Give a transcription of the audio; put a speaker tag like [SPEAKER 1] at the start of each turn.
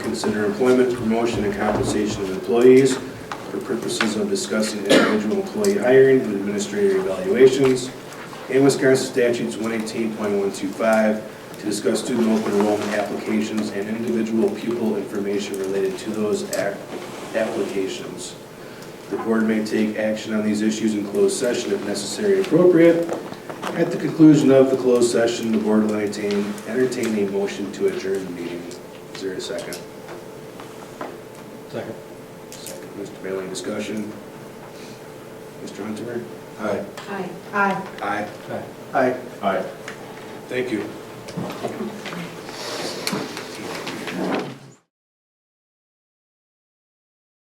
[SPEAKER 1] consider employment, promotion, and compensation of employees for purposes of discussing individual employee hiring and administrative evaluations, and Wisconsin statutes 118.125 to discuss student open enrollment applications and individual pupil information related to those ac- applications. The board may take action on these issues in closed session if necessary and appropriate. At the conclusion of the closed session, the board will entertain, entertain a motion to adjourn the meeting. Is there a second?
[SPEAKER 2] Second.
[SPEAKER 1] Second, Mr. Bailey, discussion? Mr. Hunter? Aye.
[SPEAKER 3] Aye. Aye.
[SPEAKER 1] Aye.
[SPEAKER 2] Aye.
[SPEAKER 1] Aye. Aye. Thank you.